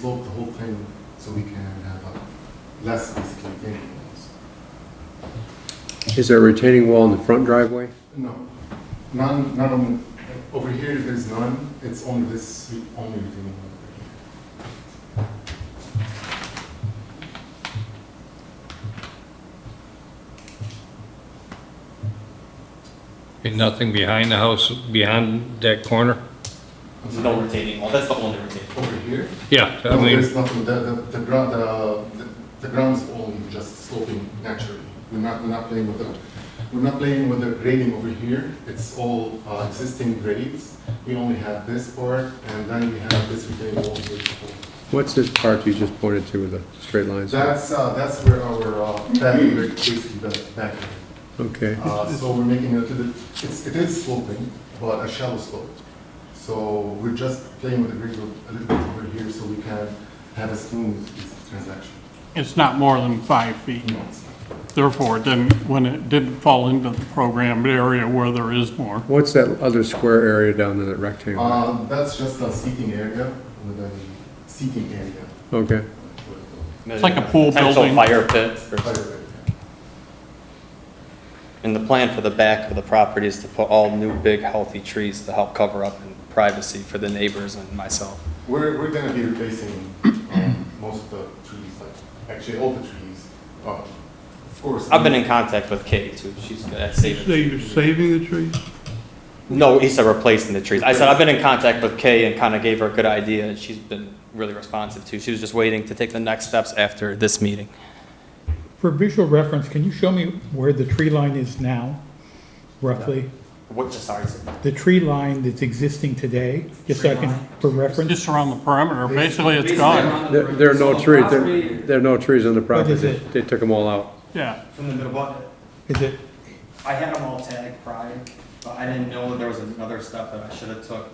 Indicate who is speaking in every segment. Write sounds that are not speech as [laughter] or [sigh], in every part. Speaker 1: slope the whole thing so we can have a less basically retaining walls.
Speaker 2: Is there a retaining wall in the front driveway?
Speaker 1: No, none, none on, over here there's none, it's only this, re- only retaining wall over here.
Speaker 3: And nothing behind the house, behind that corner?
Speaker 1: I'm
Speaker 4: There's
Speaker 1: sorry.
Speaker 4: no retaining wall, that's the only retaining. wall.
Speaker 1: Over here?
Speaker 3: Yeah, I
Speaker 1: No,
Speaker 3: mean,
Speaker 1: there's nothing, the, the, the ground, the, the- the ground is only just sloping naturally. We're not, we're not playing with the, we're not playing with the grading over here, it's all uh, existing grades. We only have this part, and then we have this retaining wall. which-
Speaker 2: What's this part you just pointed to with the straight lines?
Speaker 1: That's, uh, that's where our, uh, back, basically the back.
Speaker 2: Okay,
Speaker 1: Uh, so we're making it, to the- it's, it is sloping, but a shallow slope. So we're just playing with the grade a little bit over here, so we can have a smooth transaction.
Speaker 5: It's not more than five feet.
Speaker 1: No, it's not.
Speaker 4: Mm-hmm.
Speaker 5: Therefore, it didn't, when it didn't fall into the programmed area where there is more.
Speaker 2: what's that other square area down there, that rectangle?
Speaker 1: Uh, that's just a seating area with a seating area.
Speaker 2: Okay,
Speaker 1: with
Speaker 4: It's
Speaker 5: like a pool building.
Speaker 4: fire pit.
Speaker 1: a fire
Speaker 4: or-
Speaker 1: pit.
Speaker 4: And the plan for the back of the property is to put all new, big, healthy trees to help cover up and privacy for the neighbors and myself.
Speaker 1: We're, we're gonna be replacing, um, most of the trees, like, actually all the trees, uh, of course.
Speaker 4: I've been in contact with Katie too, she's good at saving.
Speaker 5: you're saving the trees?
Speaker 4: No, he said replacing the trees. I said, I've been in contact with Kay and kind of gave her a good idea, and she's been really responsive too. She was just waiting to take the next steps after this meeting.
Speaker 6: For visual reference, can you show me where the tree line is now, roughly?
Speaker 4: What, sorry, sir.
Speaker 6: The tree line that's existing today, just so I can, for reference?
Speaker 5: Just around the perimeter, basically it's gone.
Speaker 2: there there are no trees, there there are no trees on the property,
Speaker 6: is it?
Speaker 2: they took them all out.
Speaker 5: Yeah,
Speaker 7: from the middle bucket.
Speaker 6: Is it,
Speaker 7: I had them all tagged prior, but I didn't know there was another step that I should have took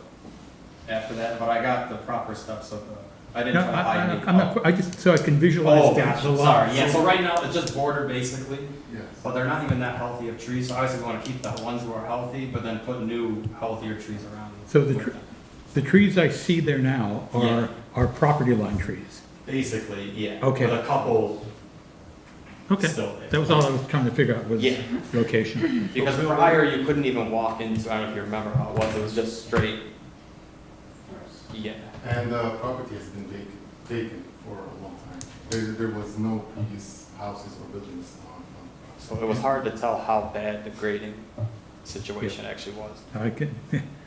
Speaker 7: after that, but I got the proper steps of the, I didn't
Speaker 6: no,
Speaker 7: try to
Speaker 6: I,
Speaker 7: hide
Speaker 6: I-
Speaker 7: any.
Speaker 6: I'm not, I just, so I can
Speaker 7: Oh,
Speaker 6: visualize that.
Speaker 7: sorry, yeah, so right now, it's just border basically,
Speaker 1: Yes.
Speaker 7: but they're not even that healthy of trees, so obviously we wanna keep the ones who are healthy, but then put new, healthier trees around.
Speaker 6: So the
Speaker 7: with
Speaker 6: tr-
Speaker 7: them.
Speaker 6: The trees I see there now
Speaker 7: Yeah.
Speaker 6: are, are property line trees.
Speaker 7: Basically, yeah.
Speaker 6: Okay.
Speaker 7: With a couple
Speaker 6: Okay,
Speaker 7: still there.
Speaker 6: that was all I was trying to figure out was
Speaker 4: Yeah.
Speaker 6: location.
Speaker 4: Because prior, you couldn't even walk into, I don't know if you remember how it was, it was just straight. Yeah.
Speaker 1: And the property has been vacant, vacant for a long time. There, there was no previous houses or buildings on, on the property.
Speaker 4: So it was hard to tell how bad the grading situation actually was.
Speaker 6: I [laughs] can,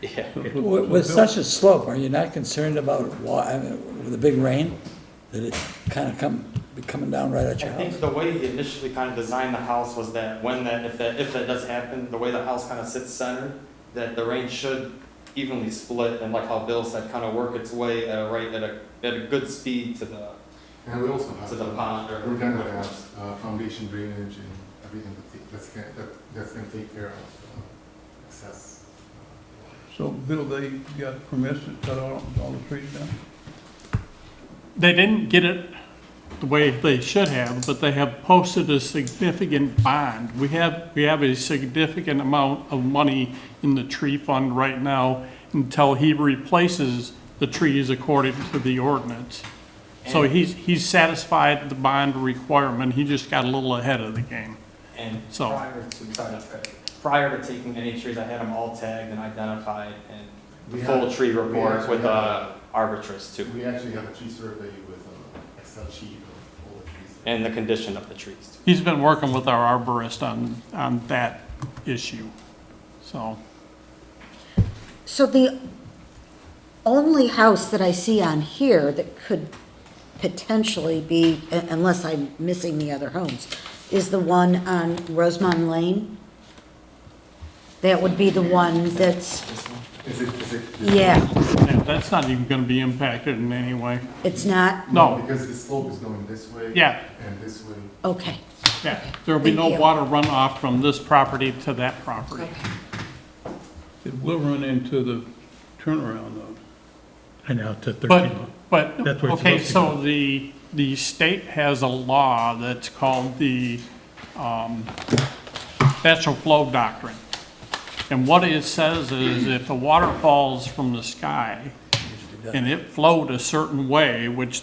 Speaker 4: Yeah.
Speaker 8: With with such a slope, are you not concerned about wa, I mean, with the big rain? That it kind of come, be coming down right at
Speaker 4: I
Speaker 8: your
Speaker 4: think
Speaker 8: house?
Speaker 4: the way he initially kind of designed the house was that when that, if that, if that does happen, the way the house kind of sits centered, that the rain should evenly split and like how Bill said, kind of work its way at a rate, at a, at a good speed to the,
Speaker 1: And we also have.
Speaker 4: to the pond or.
Speaker 1: We're gonna have, uh, foundation drainage and everything that take- that's, gonna- that, that's gonna take care of uh, excess.
Speaker 9: So, Bill, they got permission to cut all, all the trees down?
Speaker 5: they didn't get it the way they should have, but they have posted a significant bond. We have, we have a significant amount of money in the tree fund right now until he replaces the trees according to the ordinance. So
Speaker 4: And-
Speaker 5: he's, he's satisfied the bond requirement, he just got a little ahead of the game.
Speaker 4: And
Speaker 5: So-
Speaker 4: prior to, sorry, prior to taking any trees, I had them all tagged and identified and
Speaker 1: We
Speaker 4: the full
Speaker 1: have-
Speaker 4: tree
Speaker 1: we
Speaker 4: report
Speaker 1: actually
Speaker 4: with
Speaker 1: have-
Speaker 4: a arbitrist too,
Speaker 1: We actually have a tree survey with an Excel sheet of all the trees.
Speaker 4: and the condition of the trees.
Speaker 5: He's been working with our arborist on, on that issue, so.
Speaker 10: So the only house that I see on here that could potentially be, un- unless I'm missing the other homes, is the one on Rosemont Lane? That would be the one that's,
Speaker 1: Is it, is it? is it-
Speaker 10: yeah,
Speaker 5: yeah, that's not even gonna be impacted in any way.
Speaker 10: it's not,
Speaker 5: No.
Speaker 1: Because the slope is going this way.
Speaker 5: Yeah.
Speaker 1: And this way.
Speaker 10: okay,
Speaker 5: Yeah, there will be no
Speaker 10: Thank you.
Speaker 5: water runoff from this property to that property.
Speaker 10: okay.
Speaker 9: It will run into the turnaround though.
Speaker 6: I know, to
Speaker 5: But,
Speaker 6: thirteen.
Speaker 5: but,
Speaker 6: That's where it's
Speaker 5: okay,
Speaker 6: supposed to
Speaker 5: so the, the state has a law that's called the um, Natural Flow Doctrine. And what it says is if the water falls from the sky and it flowed a certain way, which